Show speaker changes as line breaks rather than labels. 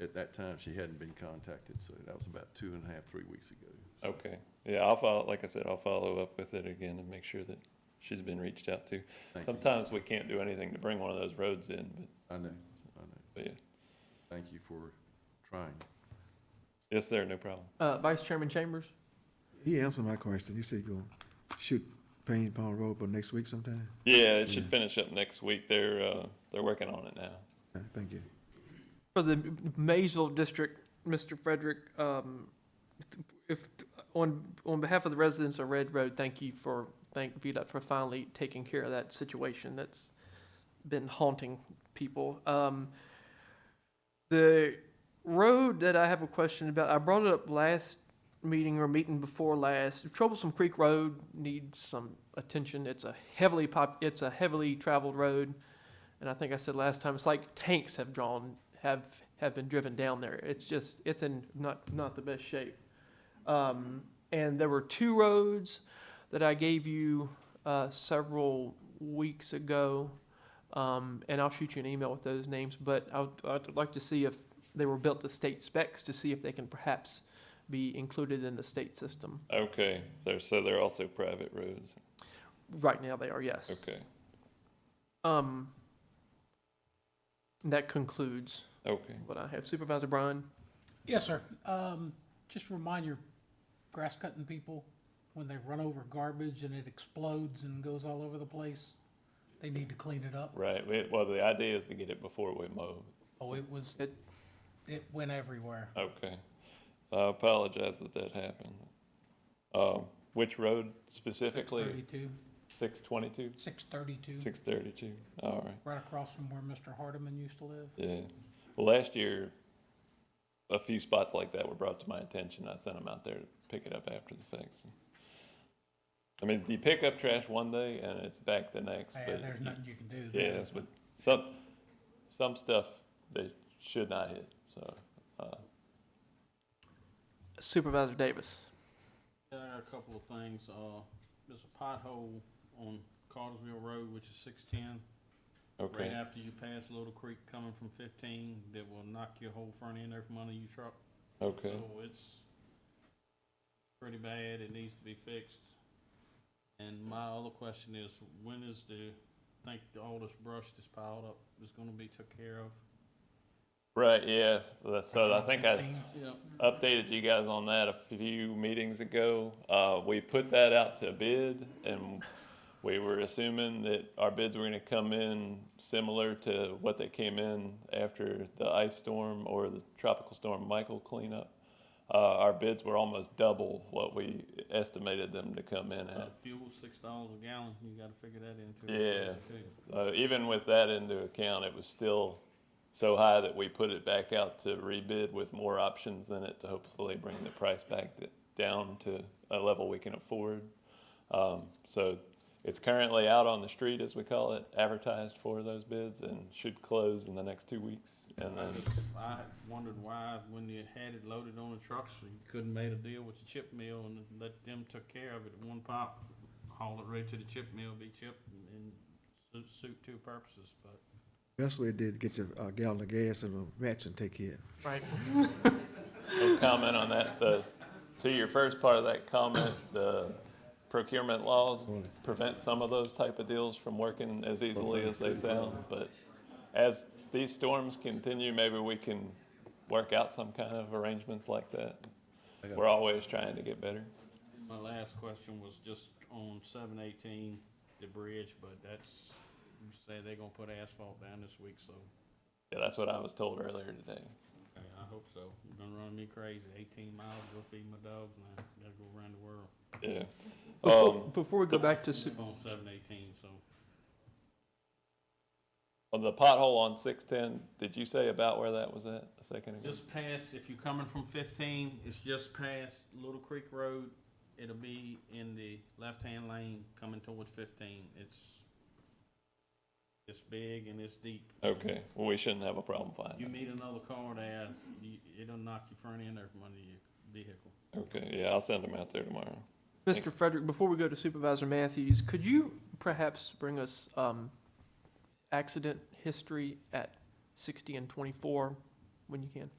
At that time, she hadn't been contacted, so that was about two and a half, three weeks ago. So
Okay, yeah, I'll follow, like I said, I'll follow up with it again and make sure that she's been reached out to.
thank you.
Sometimes we can't do anything to bring one of those roads in, but,
I know, I know.
but yeah.
Thank you for trying.
Yes, sir, no problem.
Uh, Vice Chairman Chambers?
He answered my question. You said you're gonna shoot Payne Pond Road for next week sometime?
Yeah, it should finish up next week. They're, uh, they're working on it now.
All right, Uh, Thank you.
For the Maysville District, Mr. Frederick, um, if, on, on behalf of the residents of Red Road, thank you for, thank VDOT for finally taking care of that situation that's been haunting people. Um, the road that I have a question about, I brought it up last meeting or meeting before last. Troublesome Creek Road needs some attention. It's a heavily pop, it's a heavily traveled road. and I think I said last time, it's like tanks have drawn have have been driven down there. It's just it's in not not the best shape. Um, and there were two roads that I gave you uh, several weeks ago, um, and I'll shoot you an email with those names. But I would, I'd like to see if they were built to state specs to see if they can perhaps be included in the state system.
Okay, they're, so they're also private roads.
Right now, they are yes.
Okay,
Um, that concludes
okay.
what I have. Supervisor Bryan.
Yes, sir. Um, just remind your grass cutting people, when they run over garbage and it explodes and goes all over the place, they need to clean it up.
Right, we, well, the idea is to get it before we mow.
Oh, it was,
It-
it went everywhere.
Okay. I apologize that that happened. Um, which road specifically?
Thirty-two,
Six twenty-two?
six thirty-two,
Six thirty-two, all right.
right across from where Mr. Hardeman used to live.
Yeah. Well, last year, a few spots like that were brought to my attention. I sent them out there to pick it up after the fact. so. I mean, you pick up trash one day and it's back the next.
Yeah,
but
there's nothing you can do.
Yeah, that's what- some some stuff they should not hit. So, uh,
Supervisor Davis.
There are a couple of things, uh, there's a pothole on Cartersville Road, which is six-ten, right
okay,
after you pass Little Creek coming from fifteen, that will knock your whole front end off under your truck.
okay,
So it's pretty bad, it needs to be fixed. And my other question is, when is the, think all this brush that's piled up is gonna be took care of?
right, yeah. That's- So I think I
15.
Yeah.
updated you guys on that a few meetings ago. Uh, we put that out to bid and we were assuming that our bids were gonna come in similar to what they came in after the ice storm or the tropical storm Michael cleanup. Uh, our bids were almost double what we estimated them to come in
Uh,
at.
fuel, six dollars a gallon, you gotta figure that into
Yeah.
it. too.
Uh, even with that into account, it was still so high that we put it back out to rebid with more options in it to hopefully bring the price back d- down to a level we can afford. Um, so it's currently out on the street, as we call it, advertised for those bids and should close in the next two weeks. And
I
then,
just, I wondered why, when you had it loaded on the trucks, you couldn't made a deal with the chip mill and let them took care of it at one pop. Haul it right to the chip mill, be chipped and su- suit two purposes, but
That's what it did, to get your uh, gallon of gas and a match and take care.
Right.
a comment on that, the, to your first part of that comment, the procurement laws prevent some of those type of deals from working as easily as they sound, but as these storms continue, maybe we can work out some kind of arrangements like that. We're always trying to get better.
my last question was just on seven eighteen, the bridge, but that's, you say they're gonna put asphalt down this week, so,
Yeah, that's what I was told earlier today.
okay, I hope so. You're gonna run me crazy, eighteen miles, go feed my dogs now, gotta go around the world.
Yeah.
Before,
Um,
before we go back to, su-
I'm on seven eighteen, so.
on the pothole on six-ten, did you say about where that was at a second ago?
Just past, if you're coming from fifteen, it's just past Little Creek Road. It'll be in the left-hand lane coming towards fifteen. It's, it's big and it's deep.
Okay, well, we shouldn't have a problem finding
You
it.
meet another car there, you- it'll knock your front end off under your vehicle.
Okay, yeah, I'll send them out there tomorrow.
Mr. Frederick, before we go to Supervisor Matthews, could you perhaps bring us, um, accident history at sixty and twenty-four when you can?